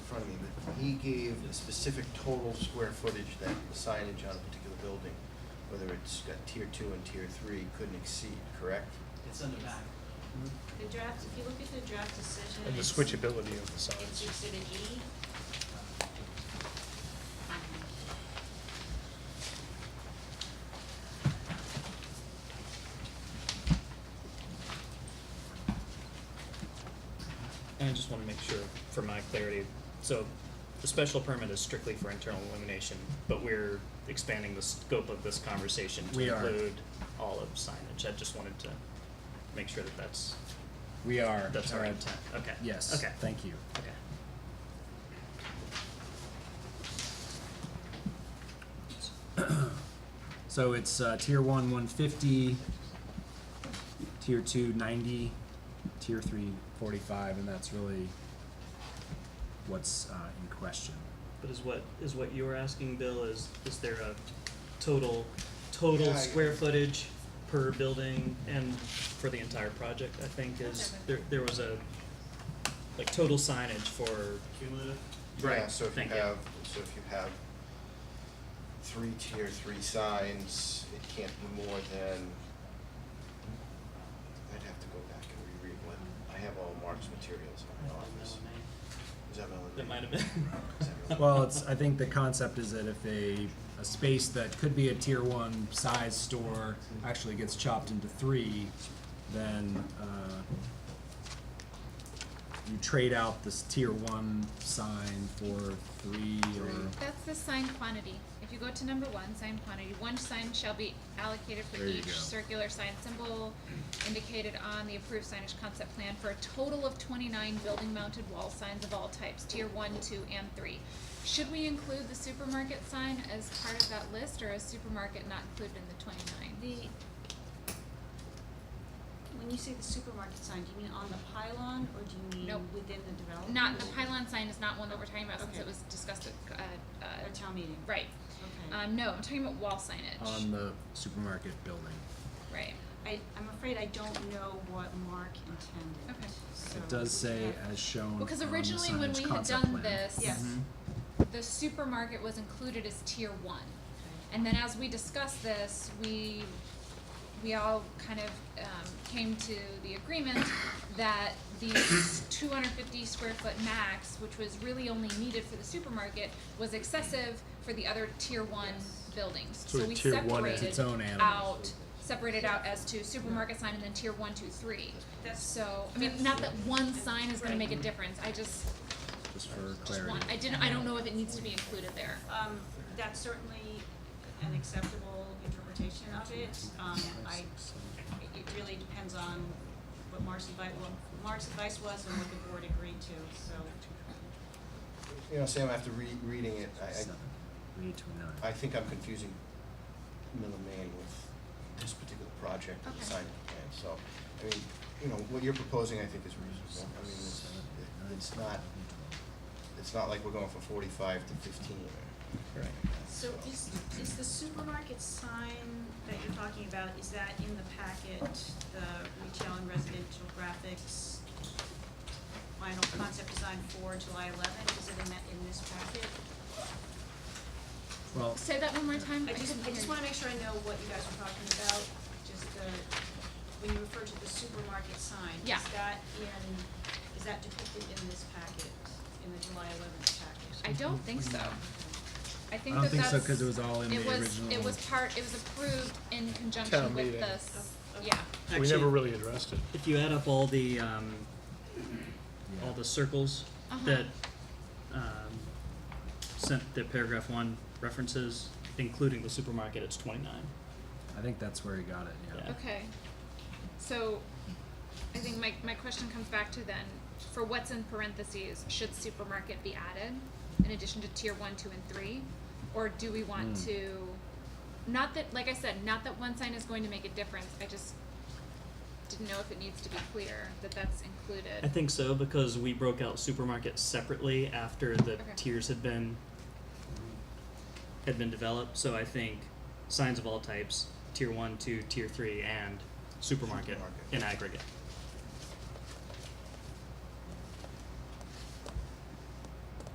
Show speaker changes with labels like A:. A: he gave the specific total square footage that the signage on a particular building, whether it's got tier two and tier three, couldn't exceed, correct?
B: It's in the back.
C: The draft, if you look at the draft decision.
D: And the
C: it's-
D: switchability of the
C: It's
D: signs.
C: exhibit E.
E: And I just want to make sure, for my clarity, so the special permit is strictly for internal illumination, but we're expanding the scope of this conversation
D: We
E: to
D: are.
E: include all of signage. I just wanted to make sure that that's,
D: We are.
E: that's our
D: uh,
E: intent. Okay.
D: Yes,
E: Okay.
D: thank you.
E: Okay.
D: So it's uh, tier one, one fifty, tier two, ninety, tier three, forty-five, and that's really what's uh, in question.
E: But is what, is what you were asking, Bill, is, is there a total, total
A: Yeah, I-
E: square footage per building and for the entire project, I think is, there, there was a, like, total signage for,
B: Cumulative?
E: Right,
A: Yeah, so if you
E: thank you.
A: have, so if you have three tier three signs, it can't be more than, I'd have to go back and reread what, I have all Mark's materials in my office. Is that Melanie?
E: that might have been.
A: Is that Melanie?
D: Well, it's, I think the concept is that if a, a space that could be a tier one size store actually gets chopped into three, then, uh, you trade out this tier one sign for three or,
F: That's the sign quantity. If you go to number one, sign quantity, one sign shall be allocated for
D: There you
F: each
D: go.
F: circular sign symbol indicated on the approved signage concept plan for a total of twenty-nine building-mounted wall signs of all types, tier one, two, and three. Should we include the supermarket sign as part of that list, or is supermarket not included in the twenty-nine?
C: The, when you say the supermarket sign, do you mean on the pylon or do you
F: Nope.
C: mean within the development?
F: Not, the pylon sign is not one that we're talking about since
C: Okay.
F: it was discussed at, uh, uh,
C: At town meeting?
F: right.
C: Okay.
F: Um, no, I'm talking about wall signage.
D: on the supermarket building.
F: Right.
C: I, I'm afraid I don't know what Mark intended.
F: Okay.
C: so
D: It does say uh,
C: we have-
D: as shown on the
F: Because originally when
D: signage
F: we had
D: concept
F: done
D: plan.
F: this,
C: Yes.
G: Mm-hmm.
D: Mhm.
F: the supermarket was included as tier one.
C: Okay.
F: And then as we discussed this, we, we all kind of, um, came to the agreement that the two hundred fifty square foot max, which was really only needed for the supermarket, was excessive for the other tier one buildings.
D: So
F: we
D: tier one is
F: separated
D: its own animal.
F: Out, separated out as to supermarket sign and then tier one, two, three.
C: That's-
F: So, I mean, not that one sign is gonna make a difference, I just,
D: Just for
F: just want, I
D: clarity.
F: didn't, I don't know if it needs to be included there.
C: Um, that's certainly an acceptable interpretation of it. Um, I, it really depends on what Mark's advice, what Mark's advice was and what the board agreed to, so.
A: You know, Sam, after re- reading it, I, I
D: Seven. Read to another.
A: I think I'm confusing Mill and Main with this particular project and the
F: Okay.
A: site plan, so, I mean, you know, what you're proposing, I think, is reasonable. I mean, it's, it's not, it's not like we're going from forty-five to fifteen or. Right.
C: So is, is the supermarket sign that you're talking about, is that in the packet, the retail and residential graphics, final concept design for July eleventh, is it in that, in this packet?
D: Well,
F: Say that one more time.
C: I just,
F: couldn't
C: I just
F: hear
C: wanna make sure I know what you guys are talking about, just the, when you refer to the supermarket sign,
F: Yeah.
C: is that in, is that depicted in this packet, in the July eleventh
F: you.
C: packet?
F: I don't think so. I
D: I
F: think
D: don't
F: that
D: think so,
F: that's-
D: cause it was all in the
F: It
D: original.
F: was, it was part, it was approved in
G: Town
F: conjunction with
G: meeting.
F: this,
C: Oh, okay.
F: yeah.
G: We never really addressed it.
E: If you add up all the um,
D: Yeah.
E: all the circles
F: Uh-huh.
E: that um, sent the paragraph one references, including the supermarket, it's twenty nine.
D: I think that's where he got it, yeah.
E: Yeah.
F: Okay. So, I think my, my question comes back to then, for what's in parentheses, should supermarket be added in addition to tier one, two, and three? Or do we want
D: Hmm.
F: to, not that, like I said, not that one sign is going to make a difference, I just didn't know if it needs to be clear that that's included.
E: I think so because we broke out supermarket separately after the
F: Okay.
E: tiers had been had been developed. So I think signs of all types, tier one, two, tier three, and supermarket,
A: Supermarket.
E: in aggregate.